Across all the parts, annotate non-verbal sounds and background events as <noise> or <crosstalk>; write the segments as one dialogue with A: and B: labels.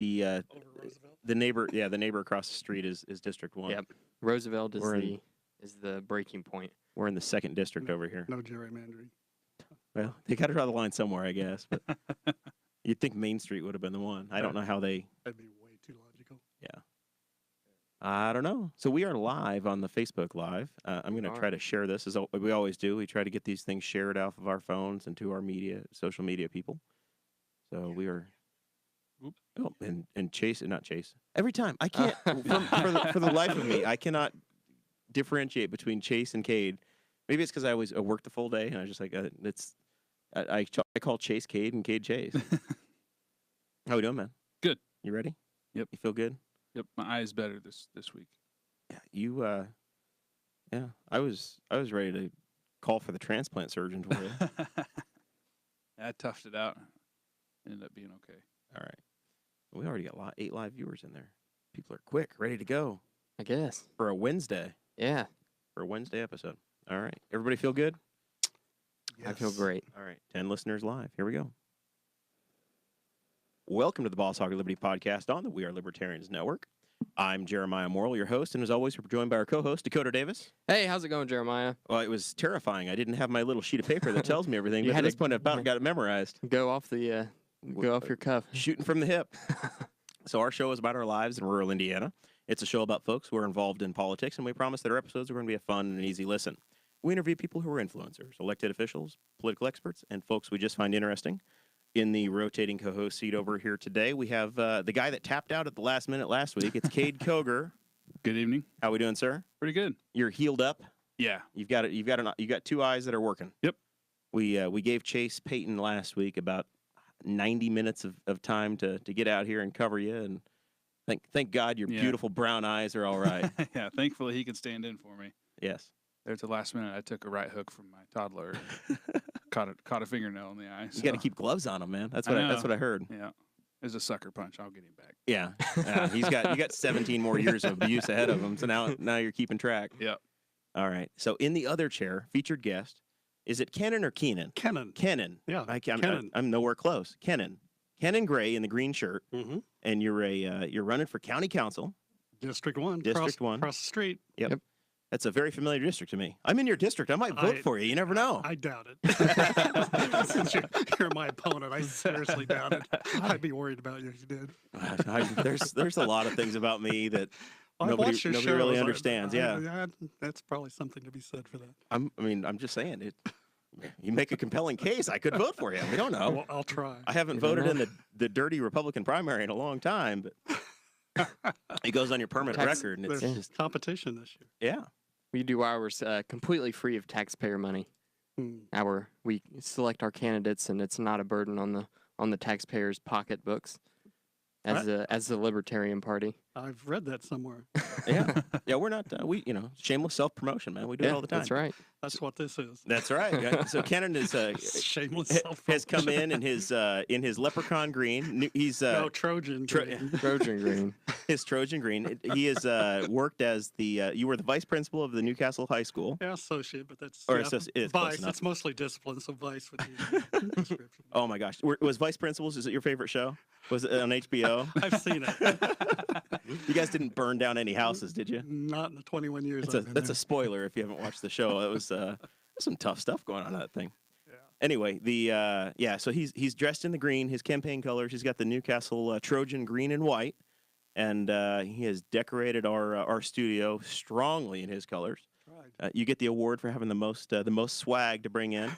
A: the uh,
B: Over Roosevelt.
A: the neighbor, yeah, the neighbor across the street is is District One.
C: Yep. Roosevelt is
A: We're in-
C: the is the breaking point.
A: We're in the second district over here.
B: No gerrymandering.
A: Well, they got to draw the line somewhere, I guess. But you'd think Main Street would have been the one. I don't know how they.
B: That'd be way too logical.
A: I don't know. So we are live on the Facebook Live. Uh, I'm going to
C: are.
A: try to share this as al- we always do. We try to get these things shared off of our phones and to our media, social media people. So we are.
B: Oop.
A: Oh, and and Chase, not Chase. Every time I
D: <laughs>
A: can't for, for, the, for the life of me, I cannot differentiate between Chase and Cade. Maybe it's because I always uh, work the full day and I just like uh, it's. I, I, ch- I call Chase Cade and Cade
D: <laughs>
A: Chase. How we doing, man?
D: Good.
A: You ready?
D: Yep.
A: You feel good?
D: Yep, my eye's better this this week. <laughs>
A: Yeah, you uh yeah, I was I was ready to call for the transplant surgeon for
C: <laughs>
A: you.
D: I toughed it out. Ended up being okay.
A: All right. We already got li- eight live viewers in there. People are quick, ready to go
C: I guess.
A: for a Wednesday,
C: Yeah,
A: for a Wednesday episode. All right. Everybody feel good?
C: I feel
B: Yes.
C: great.
A: All right. 10 listeners live. Here we go. Welcome to the Boss Hog of Liberty podcast on the We Are Libertarians Network. I'm Jeremiah Morrill, your host, and as always, we're joined by our co host, Dakota Davis.
C: Hey, how's it going, Jeremiah?
A: Well, it was terrifying. I didn't have my little sheet of paper that tells me everything,
C: <laughs> You
A: but at
C: had
A: this
C: to-
A: point, I've about got it memorized.
C: Go off the uh, go off your cuff.
A: shooting from the hip. <laughs> so our show is about our lives in rural Indiana. It's a show about folks who are involved in politics, and we promise that our episodes are going to be a fun and an easy listen. We interview people who are influencers, elected officials, political experts, and folks we just find interesting. In the rotating co-host seat over here today, we have uh, the guy that tapped out at the last minute last week. It's Cade Koger.
D: Good evening.
A: How we doing, sir?
D: Pretty good.
A: You're healed up.
D: Yeah.
A: You've got it. You've got an. You got two eyes that are working.
D: Yep.
A: We uh, we gave Chase Payton last week about ninety minutes of, of time to to get out here and cover you, and thank thank God your
D: Yeah.
A: beautiful brown eyes are all
D: <laughs>
A: right.
D: <laughs> yeah. Thankfully, he can stand in for me.
A: yes.
D: There at the last minute, I took a right hook from my toddler. and <laughs> caught a, caught a fingernail in the eye.
A: You got to
D: so,
A: keep gloves on him, man. That's
D: I
A: what I that's
D: know.
A: what I heard.
D: Yeah. It was a sucker punch. I'll get him back.
A: <laughs> Yeah. Yeah, Uh, he's got you got 17 more years of abuse ahead of him. So now now you're keeping track.
D: Yep.
A: All right. So in the other chair, featured guest, is it Kennan or Keenan?
B: Kennan.
A: Kenan.
B: Yeah.
A: I, I'm,
B: Kennan.
A: I'm nowhere close. Kenan. Kenan Gray in the green shirt.
B: Mhm.
A: and you're a uh, you're running for county council.
B: District one.
A: District
B: cross,
A: one.
B: Across the street.
A: That's a very familiar district to me. I'm in your district. I might vote
B: I-
A: for you. You never know.
B: I doubt it. <laughs> Since you're, you're my opponent, I seriously doubt it. I'd be worried about you if you did.
A: <laughs> I- there's there's a lot of things about me that
B: I've
A: Nobody-
B: watched your
A: nobody really
B: shows. I-
A: understands,
B: I-
A: yeah.
B: I- that's probably something to be said for that.
A: I'm. I mean, I'm just saying it. You make a compelling case. I could vote for you. We don't know.
B: Well, I'll try.
A: Oh. I haven't
C: You don't
A: voted in the, the dirty Republican primary in a long time, but it goes on your permanent
C: Tax-
A: record, and it's
B: There's
A: just
B: competition this year.
A: yeah.
C: We do ours uh, completely free of taxpayer money.
B: Hmm.
C: Our we select our candidates, and it's not a burden on the on the taxpayers' pocketbooks. As the as the Libertarian Party,
B: I've read that somewhere.
A: Yeah, yeah, we're not. Uh, we, you know, shameless self promotion, man. We do it all the time. <laughs>
C: that's right.
B: That's what this is.
A: That's right. Yeah. So Kennan is uh,
B: Shameless
A: ha-
B: self
A: has come in
B: <laughs>
A: in his uh, in his leprechaun green. New- He's uh,
B: No Trojan.
A: Tro-
B: green.
C: Trojan Green.
A: his Trojan green. It- He has uh, worked as the uh, you were the vice principal of the Newcastle High School.
B: Yeah, associate, but that's
A: Or
B: yeah,
A: associ- it's close
B: vice.
A: enough.
B: It's mostly discipline, so vice would be
A: <laughs>
B: the description.
A: Oh my gosh, were, was Vice Principals? Is it your favorite show? Was it on HBO?
B: I've seen it.
A: <laughs> you guys didn't burn down any houses, did you?
B: Not in the 21 years.
A: That's a
B: I've been
A: that's a
B: there.
A: spoiler if you haven't watched the show. That was uh, some tough stuff going on in that thing.
B: Yeah.
A: Anyway, the uh, yeah, so he's he's dressed in the green, his campaign colors. He's got the Newcastle uh, Trojan green and white, and uh, he has decorated our uh, our studio strongly in his colors.
B: Right.
A: Uh, you get the award for having the most uh, the most swag to bring in,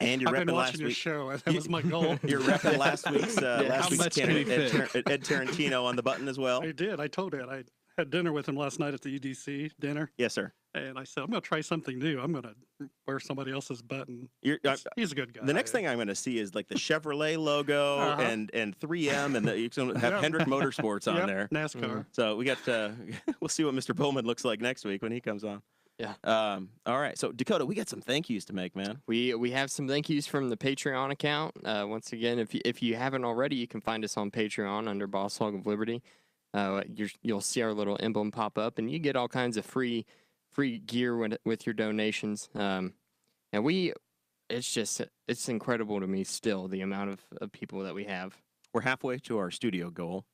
A: and you're
B: I've
A: repping
B: been
A: last
B: watching your
A: week.
B: show. and That was my goal.
A: <laughs>
B: <laughs>
A: You're repping last week's uh,
C: Yeah.
A: last
C: How
A: week's
D: much can
A: candidate
D: he
A: Ed,
D: fit?
A: Tar- Ed- Ed Tarantino on the button as
B: <laughs>
A: well.
B: I did. I told it. I had dinner with him last night at the EDC dinner,
A: Yes, sir.
B: and I said I'm going to try something new. I'm going to wear somebody else's button.
A: You're, uh, I,
B: He's, he's a good guy.
A: the next thing I'm going to see is like the Chevrolet logo
B: Uh-huh.
A: and and 3M and the, you can have
B: Yep.
A: Hendrick Motorsports on
B: <laughs> Yep,
A: there. mm-hmm.
B: NASCAR.
A: So we got uh, <laughs> we'll see what Mr. Bowman looks like next week when he comes on.
C: Yeah.
A: Um, all right. So Dakota, we got some thank yous to make, man.
C: We we have some thank yous from the Patreon account. Uh, once again, if you, if you haven't already, you can find us on Patreon under Boss Hog of Liberty. Uh, you're, you'll see our little emblem pop up, and you get all kinds of free free gear with, with your donations. Um, and we, it's just it's incredible to me still the amount of, of people that we have.
A: We're halfway to our studio goal